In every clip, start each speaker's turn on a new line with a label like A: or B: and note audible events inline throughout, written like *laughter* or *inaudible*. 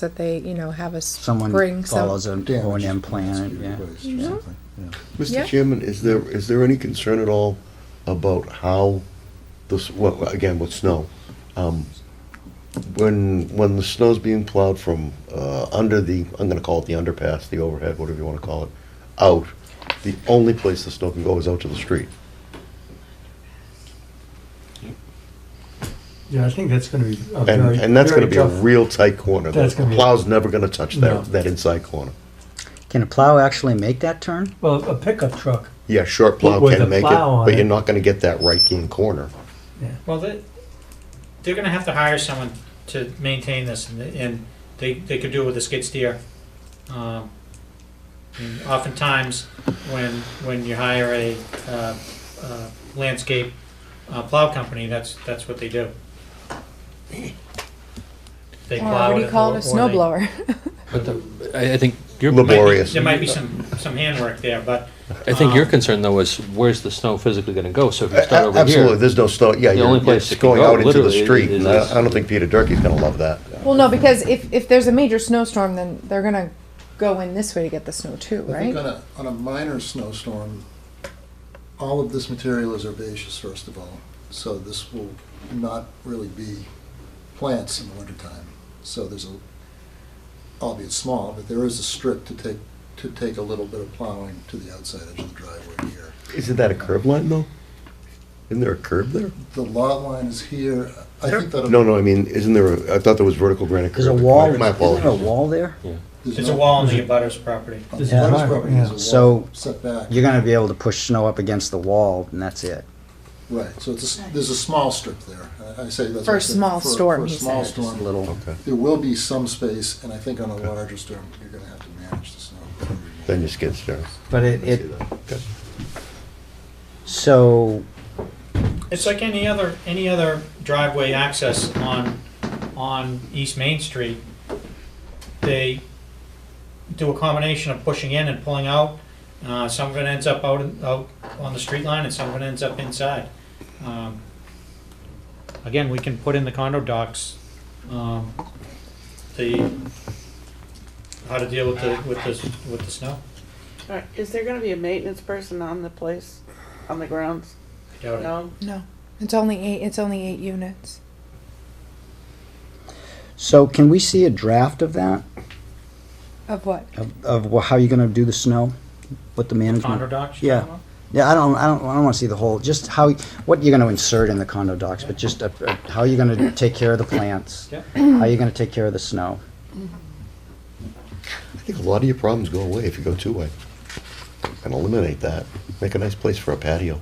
A: that they, you know, have us
B: Someone
A: bring some.
B: follows an O and
C: Damage
B: M
C: is- needs
B: plan,
C: to be
B: yeah.
C: replaced
D: Mm-hmm.
C: or
A: Mhm.
C: something, yeah.
A: Yeah.
E: Mr. Chairman, is there, is there any concern at all about how this, well, again, with snow? um, When, when the snow's being plowed from uh, under the, I'm gonna call it the underpass, the overhead, whatever you wanna call it, out, the only place the snow can go is out to the street.
F: Yeah, I think that's gonna be a
E: And,
F: very,
E: and that's gonna
F: very
E: be a
F: tough.
E: real tight corner. The
F: That's gonna be-
E: plow's never gonna touch
F: No.
E: that, that inside corner.
B: Can a plow actually make that turn?
F: Well, a pickup truck,
E: Yeah, short plow
F: With the
E: can make it,
F: plow on
E: but
F: it.
E: you're not gonna get that right-hand corner.
D: Well, they, they're gonna have to hire someone to maintain this, and, and they, they could do it with a skid steer. Um, and oftentimes, when, when you hire a, uh, uh, landscape uh, plow company, that's, that's what they do. They
A: Or
D: plow
A: what do
D: it,
A: you call it,
D: or-
A: a
D: or
A: snow
D: they-
A: blower?
D: *laughs*
G: But the, I, I think your,
D: Might be-
E: Laborious.
D: There might be some, some handwork there, but.
G: I think your
D: um,
G: concern though is where's the snow physically going to go? So if you start
E: uh, A-
G: over
E: Absolutely,
G: here,
E: there's no snow. Yeah,
G: The
E: you're,
G: only
E: you're
G: place it can
E: going
G: go,
E: out into the
G: literally,
E: street.
G: is-
E: and I, I don't think Peter Durkee's going to love that.
A: *laughs* Well, no, because if, if there's a major snowstorm, then they're gonna go in this way to get the snow too,
C: I think
A: right?
C: on a, on a minor snowstorm, all of this material is herbaceous, first of all. So this will not really be plants in the wintertime. So there's a, albeit small, but there is a strip to take, to take a little bit of plowing to the outside edge of the driveway here.
E: Isn't that a curb line though? Isn't there a curb there?
C: The lot line is here. I think that.
E: No, no. I mean, isn't there? A, I thought there was vertical granite curb.
B: There's a wall,
E: My, my
B: isn't there a
E: apologies.
B: wall there?
D: There's a wall on the abutter's property.
C: On
F: There's
C: this
F: a wall,
C: property, there's a
F: yeah.
C: wall
B: So-
C: set back.
B: You're gonna be able to push snow up against the wall and that's it.
C: Right, so it's, a s- there's a small strip there. I- I say that's.
A: For a
C: I said,
A: small
C: for-
A: storm,
C: For a
A: he
C: small
A: said.
C: storm.
B: Little,
E: Okay.
C: There will be some space, and I think on a larger storm, you're gonna have to manage the snow.
E: Then your skid steer.
B: but it,
E: I see
B: it,
E: that. Okay.
B: so,
D: It's like any other, any other driveway access on, on East Main Street. They do a combination of pushing in and pulling out. Uh, some of it ends up out, in- out on the street line and some of it ends up inside. Um, Again, we can put in the condo docs, um, the, how to deal with the, with the, with the snow.
H: All right, is there gonna be a maintenance person on the place, on the grounds?
D: I
B: Oh,
D: doubt it.
H: No?
A: No, it's only eight, it's only eight units.
B: so can we see a draft of that?
A: Of what?
B: Of, of wha- how you're gonna do the snow? What the
D: Condo
B: management?
D: docs?
B: Yeah. Yeah, I don't, I don't, I don't wanna see the whole, just how, what you're gonna insert in the condo docs, but just, uh, uh, how you're gonna take care of the plants?
D: Yep.
B: How you're gonna take care of the snow?
E: I think a lot of your problems go away if you go two way. And eliminate that. Make a nice place for a patio.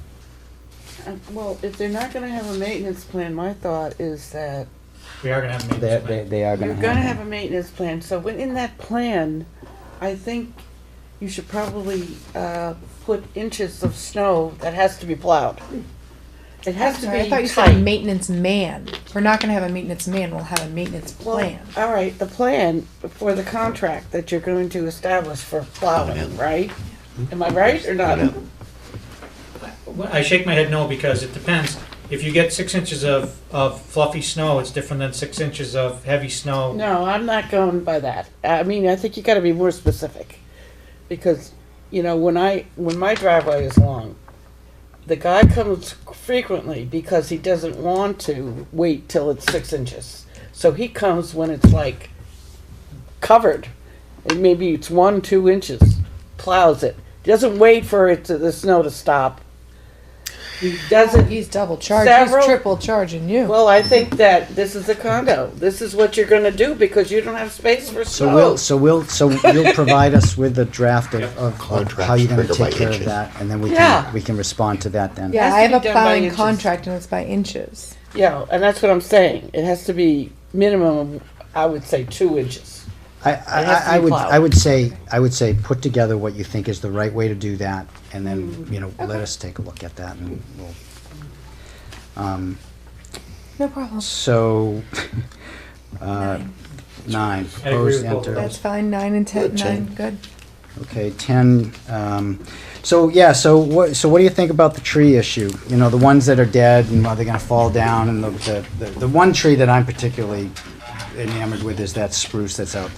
H: Uh, Well, if they're not gonna have a maintenance plan, my thought is that
D: We are gonna have a
B: They,
D: maintenance
B: they,
D: man.
B: they are
H: you're
B: gonna
H: gonna
B: have.
H: have a maintenance plan, so within that plan, I think you should probably, uh, put inches of snow that has to be plowed. It has to be
A: Sorry,
H: tight.
A: I thought you said maintenance man. We're not gonna have a maintenance man, we'll have a maintenance
H: Well,
A: plan.
H: All right, the plan for the contract that you're going to establish for plowing, right?
B: Hmm?
H: Am I right or not?
D: Well, I shake my head no because it depends. If you get six inches of, of fluffy snow, it's different than six inches of heavy snow.
H: No, I'm not going by that. I mean, I think you gotta be more specific. Because, you know, when I, when my driveway is long, the guy comes frequently because he doesn't want to wait till it's six inches. So he comes when it's like covered. And maybe it's one, two inches, plows it. Doesn't wait for it to, the snow to stop. He doesn't,
A: He's double charged, he's
H: Several-
A: triple charging you.
H: well, I think that this is a condo. This is what you're gonna do because you don't have space for
B: So we'll,
H: snow.
B: so we'll, so you'll provide us with a draft of, of- of
E: Contracts
B: how you're gonna
E: trigger by
B: take care of
E: inches.
B: that, and then we
H: Yeah.
B: can, we can respond to that then.
A: Yeah,
H: has
A: I have
H: to
A: a
H: be done by
A: plowing
H: inches.
A: contract and it's by inches.
H: Yeah, and that's what I'm saying. It has to be minimum, I would say, two inches.
B: I, I,
H: It has to
B: I- I
H: be
B: would,
H: plowed.
B: I would say, I would say, put together what you think is the right way to do that, and
H: Mm-hmm.
B: then, you know, let us take a look at that, and we'll. Um,
A: No problem.
B: so, *laughs* uh, nine,
D: I agree with
B: proposed
D: both of
B: enter,
A: That's fine, nine and ten,
E: Good, Jane.
A: nine, good.
B: okay, ten, um, so, yeah, so what, so what do you think about the tree issue? You know, the ones that are dead, and are they gonna fall down, and the, the, the- the one tree that I'm particularly enamored with is that spruce that's out there.